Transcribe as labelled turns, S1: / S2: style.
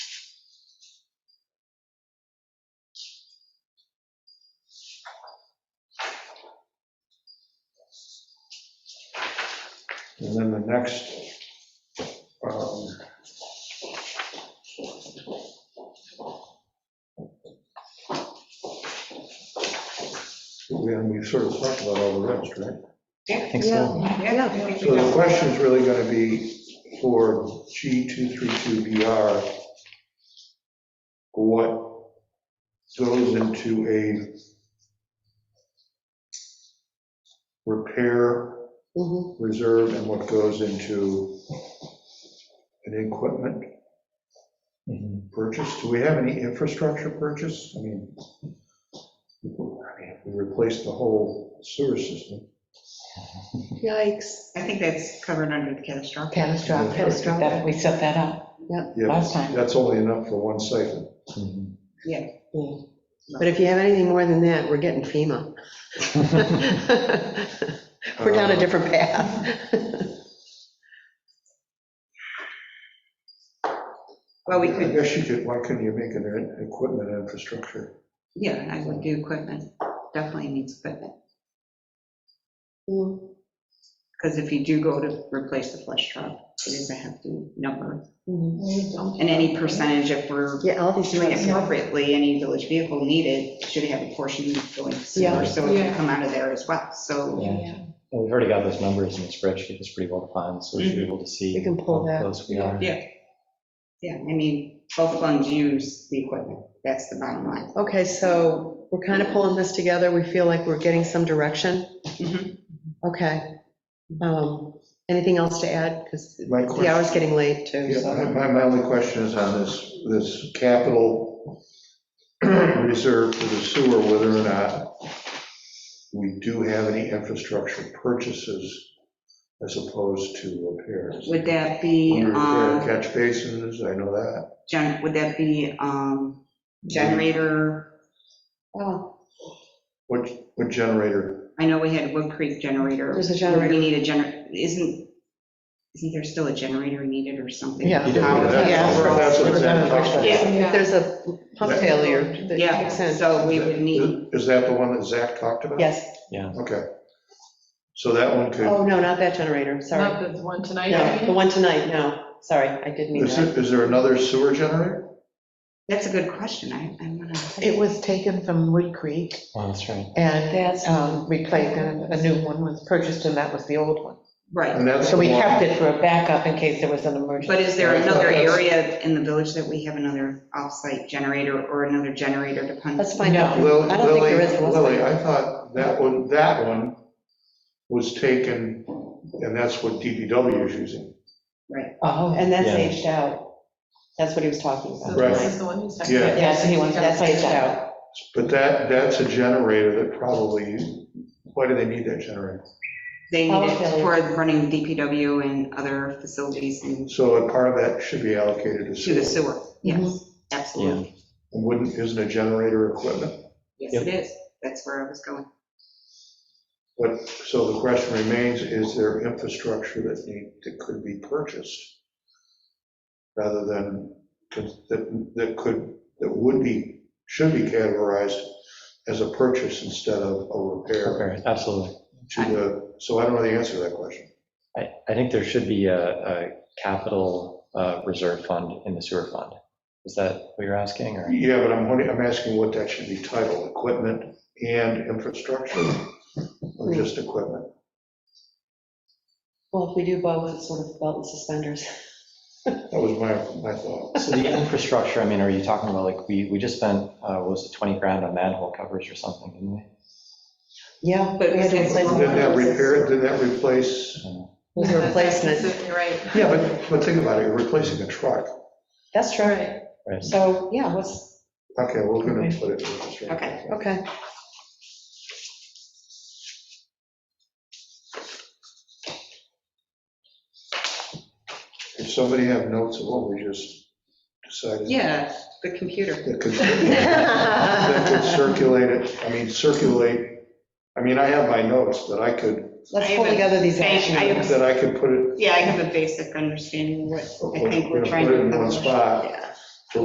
S1: And then the next, um, we- and we sort of talked about all the rest, right?
S2: I think so.
S3: Yeah,
S4: I think
S1: So the question's really gonna be for G232VR, what goes into a repair
S3: Mhm.
S1: reserve and what goes into an equipment
S2: Mhm.
S1: purchase? Do we have any infrastructure purchase? I mean, I mean, we replaced the whole sewer system.
S3: Yikes.
S4: I think that's covered under the catastrophic.
S3: Catastrophic.
S2: That- We set that up
S1: Yeah,
S2: last time.
S1: That's only enough for one siphon.
S2: Mhm.
S3: Yeah. But if you have anything more than that, we're getting FEMA. We're
S1: Uh,
S3: down a different path.
S4: Well, we
S1: I
S4: could,
S1: guess you could, why couldn't you make an in- equipment infrastructure?
S4: yeah, I would do equipment, definitely needs equipment.
S3: Mhm.
S4: Because if you do go to replace the flush truck, it is a hefty number. And any percentage, if we're
S3: Yeah, all these
S4: doing it
S3: things.
S4: appropriately, any village vehicle needed should have a portion going to
S3: Yeah.
S4: sewer, so it can
S5: Yeah.
S4: come out of there as well. So
S2: Yeah. Well, We've already got those numbers in the spreadsheet, it's pretty well defined, so we should be able to see.
S3: Mm-hmm. We can pull
S2: how
S3: that.
S2: Close we are.
S4: Yeah. Yeah, I mean, both funds use the equipment, that's the bottom line.
S3: Okay, so we're kind of pulling this together. We feel like we're getting some direction.
S4: Mhm.
S3: Okay. Um, Anything else to add? Because
S1: My
S3: the
S1: question,
S3: hour's getting late too.
S1: yeah,
S3: so-
S1: my, my only question is on this, this capital reserve for the sewer, whether or not we do have any infrastructure purchases as opposed to repairs.
S4: Would that be,
S1: Under uh, repair
S4: um,
S1: Catch basins, I know that.
S4: gen, would that be, um, generator? Oh,
S1: What, what generator?
S4: I know we had Wood Creek generator.
S3: There's a
S4: We
S3: generator.
S4: need a gener, isn't, isn't there still a generator needed or something?
S3: Yeah.
S2: You don't
S4: Power.
S2: need that.
S3: Yeah.
S1: That's what it's at.
S3: If
S5: Yeah.
S3: there's a pump failure that
S4: Yeah,
S3: kicks in.
S4: so we would need,
S1: Is that the one that Zach talked about?
S3: Yes.
S1: Okay. So that one could
S3: Oh, no, not that generator. Sorry.
S5: Not the one tonight,
S3: No,
S5: I
S3: the
S5: mean?
S3: one tonight, no, sorry, I didn't mean
S1: Is
S3: that.
S1: there, is there another sewer generator?
S4: that's a good question, I, I'm gonna.
S6: It was taken from Wood Creek
S2: Oh, that's right.
S6: and um, replaced, and a new one was purchased, and that was the old one.
S4: Right,
S1: And that's
S6: So we
S1: the one-
S6: kept it for a backup in case there was an emergency.
S4: but is there another area in the village that we have another off-site generator or another generator to pump?
S3: Let's find out.
S1: Lil-
S3: I don't think there
S1: Lily,
S3: is one.
S1: Lily, I thought that one, that one was taken, and that's what DPW is using.
S6: Oh,
S3: And that's
S2: Yeah.
S3: aged out. That's what he was talking
S5: So
S3: about.
S5: this is the one who's talking
S1: Yeah.
S5: about.
S6: Yes, he wants,
S3: That's
S6: that's
S3: aged
S6: aged
S3: out.
S1: But that, that's a generator that probably, why do they need that generator?
S4: They need it
S6: Okay.
S4: for running DPW and other facilities and
S1: So a part of that should be allocated to
S4: to the
S1: sewer.
S4: sewer,
S3: Mm-hmm.
S4: yes, absolutely.
S1: And Wouldn't, isn't a generator equipment?
S4: Yes, it is, that's where I was going.
S1: But, so the question remains, is there infrastructure that need, that could be purchased? Rather than, that, that could, that would be, should be categorized as a purchase instead of a repair
S2: Okay, Absolutely.
S1: to the, so I don't know the answer to that question.
S2: I, I think there should be a, a capital uh, reserve fund in the sewer fund. Is that what you're asking, or?
S1: Yeah, but I'm wondering, I'm asking what that should be titled, equipment and infrastructure,
S4: Hmm.
S1: or just equipment?
S3: Well, if we do both, it's sort of belt and suspenders.
S1: That was my, my thought.
S2: So the infrastructure, I mean, are you talking about, like, we, we just spent, uh, what was it 20 grand on manhole covers or something, didn't we?
S3: Yeah.
S4: But
S3: we had to
S4: it's-
S3: replace
S1: Did that
S3: all those.
S1: repair, did that replace?
S3: It was a replacement.
S5: You're right.
S1: Yeah, but, but think about it, you're replacing a truck.
S3: That's true.
S2: Right.
S3: So, yeah, let's,
S1: Okay, we're gonna put it. in this right
S4: Okay.
S1: now.
S3: okay.
S1: If somebody have notes of what we just decided.
S4: Yeah, the computer.
S1: That could, that could circulate it, I mean, circulate, I mean, I have my notes that I could,
S3: Let's pull together these action
S4: I have
S3: items.
S1: that I could put it,
S4: Yeah, I have a basic understanding of what I think
S1: We're gonna
S4: we're trying
S1: put it
S4: to
S1: in one
S4: accomplish.
S1: spot.
S4: Yeah.